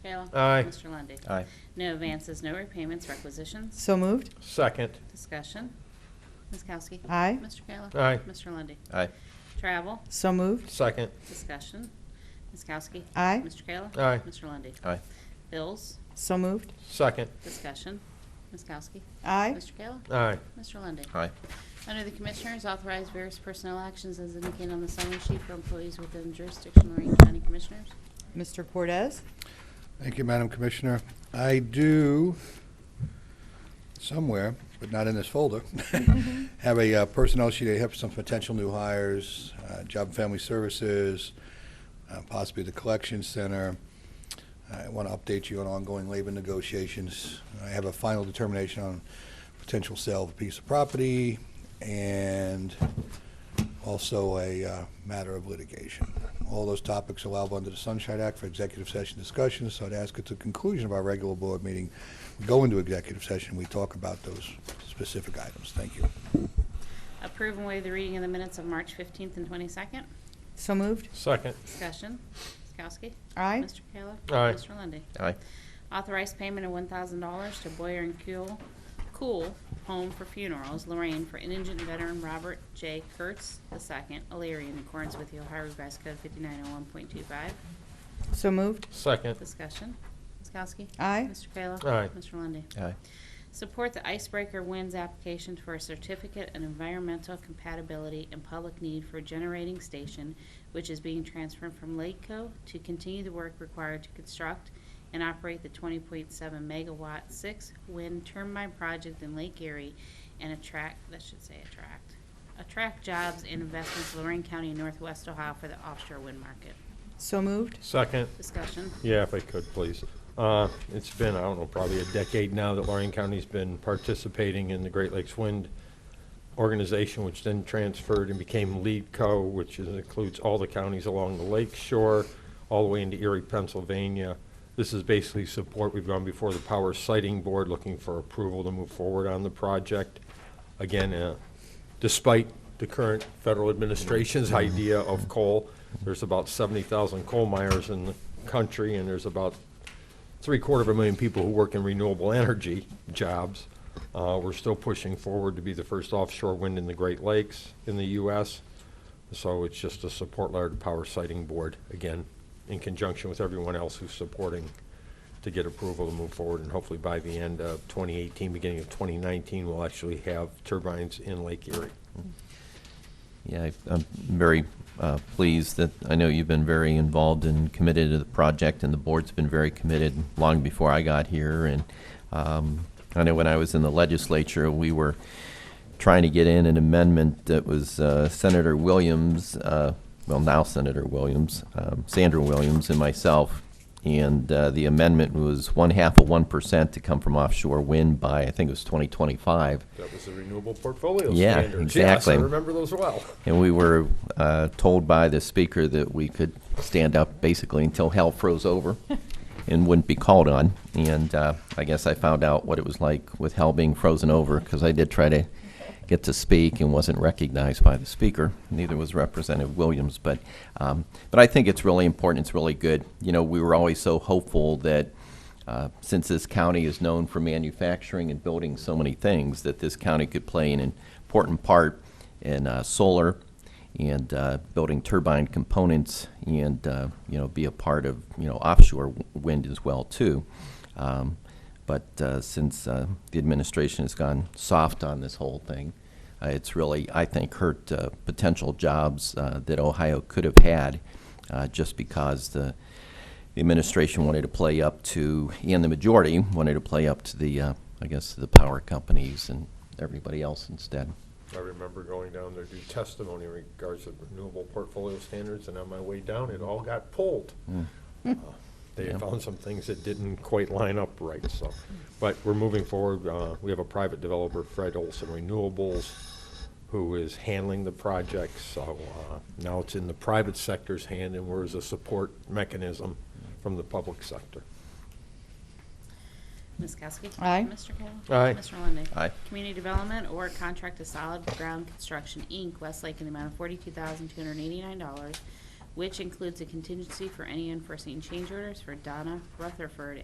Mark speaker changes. Speaker 1: Kayla.
Speaker 2: Aye.
Speaker 1: Mr. Lundy.
Speaker 3: Aye.
Speaker 1: No advances, no repayments, requisitions.
Speaker 4: So moved.
Speaker 2: Second.
Speaker 1: Discussion. Ms. Kowski.
Speaker 4: Aye.
Speaker 1: Mr. Kayla.
Speaker 2: Aye.
Speaker 1: Mr. Lundy.
Speaker 3: Aye.
Speaker 1: Travel.
Speaker 4: So moved.
Speaker 2: Second.
Speaker 1: Discussion. Ms. Kowski.
Speaker 4: Aye.
Speaker 1: Mr. Kayla.
Speaker 2: Aye.
Speaker 1: Mr. Lundy.
Speaker 3: Aye.
Speaker 1: Bills.
Speaker 4: So moved.
Speaker 2: Second.
Speaker 1: Discussion. Ms. Kowski.
Speaker 4: Aye.
Speaker 1: Mr. Kayla.
Speaker 2: Aye.
Speaker 1: Mr. Lundy.
Speaker 3: Aye.
Speaker 1: Under the Commissioners, authorize various personnel actions as indicated on the summary sheet for employees within jurisdiction of Lorraine County Commissioners.
Speaker 4: Mr. Cortez?
Speaker 5: Thank you, Madam Commissioner. I do, somewhere, but not in this folder, have a uh, personnel sheet. I have some potential new hires, uh, Job and Family Services, uh, possibly the Collection Center. I want to update you on ongoing labor negotiations. I have a final determination on potential sale of a piece of property and also a uh, matter of litigation. All those topics allowable under the Sunshine Act for executive session discussions, so I'd ask at the conclusion of our regular board meeting, we go into executive session, we talk about those specific items. Thank you.
Speaker 1: Approve and waive the reading of the minutes of March 15th and 22nd.
Speaker 4: So moved.
Speaker 2: Second.
Speaker 1: Discussion. Ms. Kowski.
Speaker 4: Aye.
Speaker 1: Mr. Kayla.
Speaker 2: Aye.
Speaker 1: Mr. Lundy.
Speaker 3: Aye.
Speaker 1: Authorized payment of $1,000 to Boyer and Kuhl, Cool Home for Funerals, Lorraine, for indigent veteran Robert J. Kurtz II, Alaria, in accordance with the Ohio Revised Code 5901.25.
Speaker 4: So moved.
Speaker 2: Second.
Speaker 1: Discussion. Ms. Kowski.
Speaker 4: Aye.
Speaker 1: Mr. Kayla.
Speaker 2: Aye.
Speaker 1: Mr. Lundy.
Speaker 3: Aye.
Speaker 1: Support the Icebreaker Winds application for a certificate in environmental compatibility and public need for a generating station, which is being transferred from Lakeco to continue the work required to construct and operate the 20.7 megawatt six wind turbine project in Lake Erie and attract, that should say attract, attract jobs and investments to Lorraine County and Northwest Ohio for the offshore wind market.
Speaker 4: So moved.
Speaker 2: Second.
Speaker 1: Discussion.
Speaker 2: Yeah, if I could, please. Uh, It's been, I don't know, probably a decade now that Lorraine County's been participating in the Great Lakes Wind Organization, which then transferred and became Lead Co., which is- includes all the counties along the lake shore, all the way into Erie, Pennsylvania. This is basically support. We've gone before the Power Sighting Board looking for approval to move forward on the project. Again, uh, despite the current federal administration's idea of coal, there's about 70,000 coal miners in the country, and there's about three-quarter of a million people who work in renewable energy jobs. Uh, We're still pushing forward to be the first offshore wind in the Great Lakes in the U.S. So it's just a support letter to Power Sighting Board, again, in conjunction with everyone else who's supporting to get approval to move forward. And hopefully by the end of 2018, beginning of 2019, we'll actually have turbines in Lake Erie.
Speaker 3: Yeah, I- I'm very uh, pleased that, I know you've been very involved and committed to the project, and the board's been very committed long before I got here. And um, I know when I was in the legislature, we were trying to get in an amendment that was uh, Senator Williams, uh, well, now Senator Williams, um, Sandra Williams and myself, and uh, the amendment was one half of 1% to come from offshore wind by, I think it was 2025.
Speaker 2: That was the renewable portfolio
Speaker 3: Yeah,
Speaker 2: standards.
Speaker 3: exactly.
Speaker 2: Yes, I remember those well.
Speaker 3: And we were uh, told by the speaker that we could stand up basically until hell froze over and wouldn't be called on. And uh, I guess I found out what it was like with hell being frozen over because I did try to get to speak and wasn't recognized by the speaker. Neither was Representative Williams. But, um, but I think it's really important. It's really good. You know, we were always so hopeful that uh, since this county is known for manufacturing and building so many things, that this county could play an important part in uh, solar and uh, building turbine components and, uh, you know, be a part of, you know, offshore w- wind as well, too. Um, But uh, since uh, the administration has gone soft on this whole thing, uh, it's really, I think, hurt uh, potential jobs uh, that Ohio could have had uh, just because the the administration wanted to play up to, and the majority wanted to play up to the, uh, I guess, the power companies and everybody else instead.
Speaker 2: I remember going down there to do testimony in regards to renewable portfolio standards, and on my way down, it all got pulled. Uh, They
Speaker 3: Yeah.
Speaker 2: found some things that didn't quite line up right, so, but we're moving forward. Uh, We have a private developer, Fred Olson Renewables, who is handling the project, so uh, now it's in the private sector's hand, and we're as a support mechanism from the public sector.
Speaker 1: Ms. Kowski.
Speaker 4: Aye.
Speaker 1: Mr. Kayla.
Speaker 2: Aye.
Speaker 1: Mr. Lundey.
Speaker 3: Aye.
Speaker 1: Community Development or contract to Solid Ground Construction, Inc., Westlake, in the amount of forty-two thousand, two hundred and eighty-nine dollars which includes a contingency for any unforeseen change orders for Donna Rutherford